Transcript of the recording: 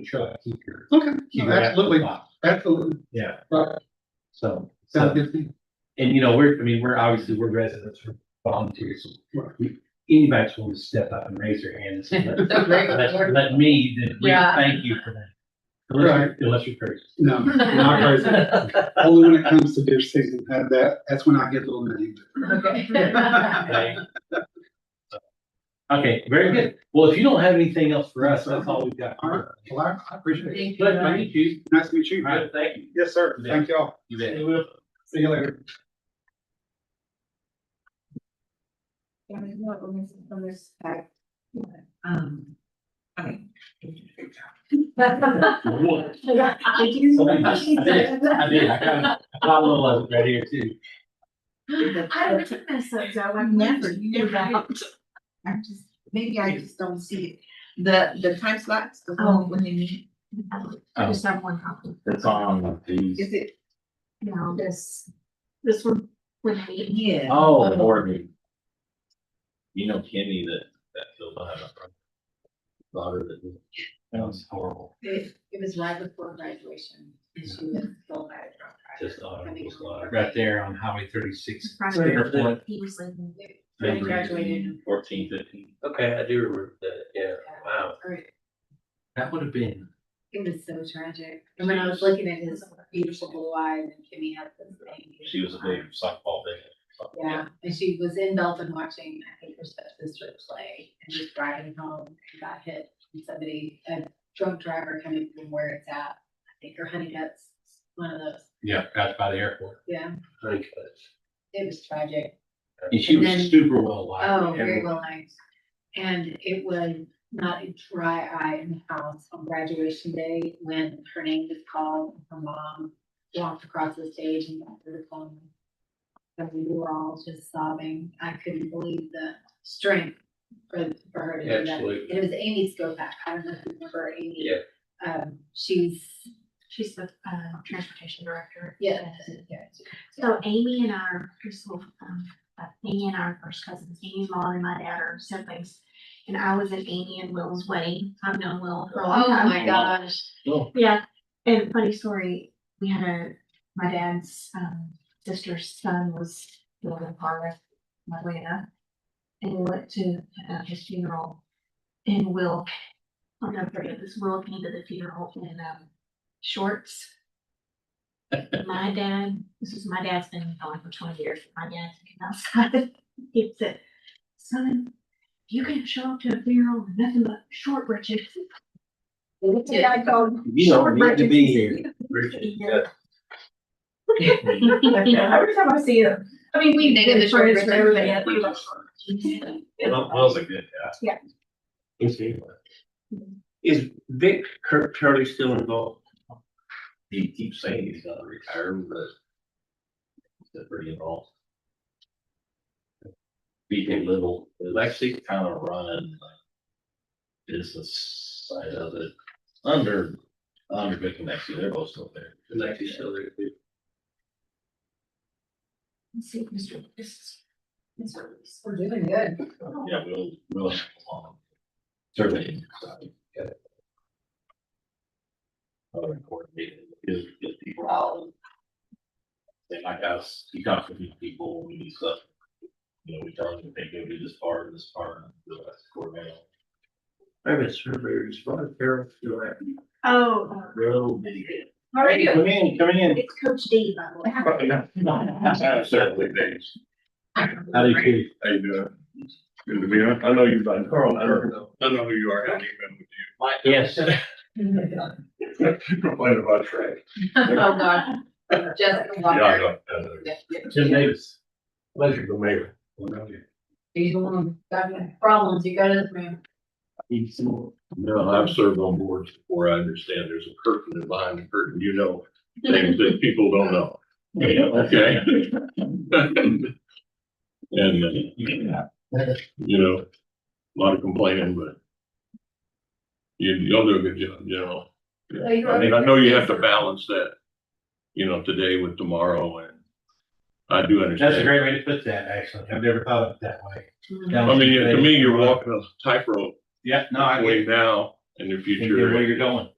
Chuck, keep your. Okay, keep no, your absolutely, laptop. absolutely, Yeah. Right. So, sounds so, good to me. and you know, we're, I mean, we're obviously, we're residents, we're volunteers. Right. We- Anybody's willing to step up and raise their hand and say, let, So great. let, let me, then we Yeah. thank you for that. Unless, Right. you're- unless you're crazy. No, not crazy. Only when it comes to deer season, that, that, that's when I get a little naive. Okay. Okay. Okay, very good. Well, if you don't have anything else for us, that's all we've got. All right, well, I- I appreciate it. Thank Pleasure to you. meet you. Nice to meet you. All right, thank you. Yes, sir. You bet. Thank y'all. You bet. See you later. Yeah, there's no illness from this fact. Um. okay. What? Did you- Somebody just did. I did, I got, I got a little of it right here too. I would take that uh, so, Joe, I've never, you never. I just, maybe I just don't see it, the, the time slots, the Oh. one when they meet. I just have one copy. It's on these, Is it? No, this, this one, when I meet. Yeah. oh, Lord. me. You know Kenny that, that filled out a daughter that. That was horrible. It it was right before graduation, and she was still by the Just horrible slaughter. Right there on Highway thirty-six. Right. Interpol. He was living. They graduated. Fourteen, fifteen. Okay, I do remember that, yeah, wow. Right. That would have been, It was so tragic. And when I was looking at his beautiful blue eyes and Kimmy had this thing. She was a big softball big. Yeah, and she was in Belton watching, I think, her stepsister play and just driving home and got hit. And somebody, a drunk driver coming from where it's at, I think her honey guts, one of those, yeah, out by the airport. yeah, Honeycutt. it was tragic. And she And was then- super well liked. Oh, very Everyone- well liked. And it was not a dry eye in the house on graduation day when her name was called, her mom walked across the stage and got her the phone. And we were all just sobbing. I couldn't believe the strength for, for her to do that. Absolutely. And It was Amy Skopak. I don't know if you remember Amy. Yeah. Um, she's, She's the uh, transportation director. yeah. So Amy and our, here's a little, um, uh, Amy and our first cousins, Amy's mom and my dad are siblings. And I was at Amy and Will's wedding. I've known Will for a long Oh, time. my gosh. Yeah, and funny story, we had a, my dad's, um, sister's son was living in Florida, luckily enough. And we went to, uh, his funeral and Will, I'll never forget this, Will came to the funeral in, um, shorts. My dad, this is my dad's been gone for twenty years, my dad's been outside, he said, son, you can't show up to a funeral in nothing but short breeches. Yeah. I called You don't need to be here. Richard, Yeah. yeah. Every time I see him, I mean, we They did the short friends for ribs. everybody, I think. Well, Will's a good guy. Is he? Is Vic Kirk Turley still involved? He keeps saying he's gonna retire, but he's pretty involved. BJ Little is actually kind of running like business side of it under, under Vic and actually, they're both still there. It's actually still there. Let's see, Mr. This is. Mr. We're doing good. Yeah, we'll, we'll have long survey. Other important meeting is get people out. They might ask, you got fifty people, we need stuff. You know, we tell them they go do this part, and this part, and the rest coordinate. I have a surveyor, he's from the Fairfield Avenue. Oh, uh, Real busy. all right, Come in, come in. it's Coach D, by the way. Certainly, thanks. How do you feel? How you doing? Good to be on. I know you've done. Carl, I don't know. I know who you are. I haven't even with Yes, you. Complain about trash. Oh, God. Jessica Yeah, Walker. I know. I know. Jim Davis. Pleasure, the mayor. He's the one who's got problems. You go to this man. No, I've served on boards before. I understand there's a curtain and behind the curtain, you know, things that people don't know. Okay. And, uh, you know, a lot of complaining, but you, you'll do a good job, you know. I mean, I know you have to balance that, you know, today with tomorrow and I do That's a understand. great way to put that, actually. I've never thought of it that way. I mean, to me, you're walking a tightrope Yeah, no, I get between it. now and the You future. get where you're going.